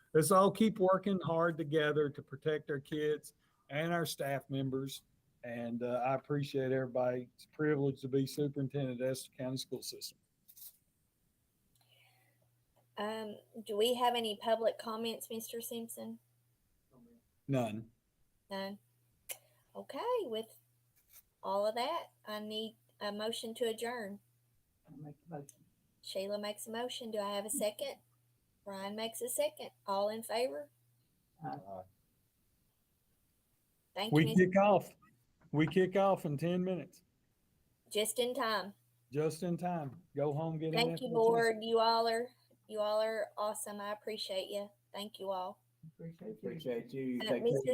let's all keep working hard together to protect our kids and our staff members. And uh, I appreciate everybody. It's a privilege to be superintendent at Estill County School System. Um, do we have any public comments, Mr. Simpson? None. None. Okay, with all of that, I need a motion to adjourn. Make the motion. Sheila makes a motion. Do I have a second? Ryan makes a second. All in favor? Thank you, We Miss- kick off. We kick off in ten minutes, just in time. just in time. Go home, get an. Thank you, FHS. board. You all are, you all are awesome. I appreciate you. Thank you all. Appreciate you. Appreciate you. You Uh, take care. Mr.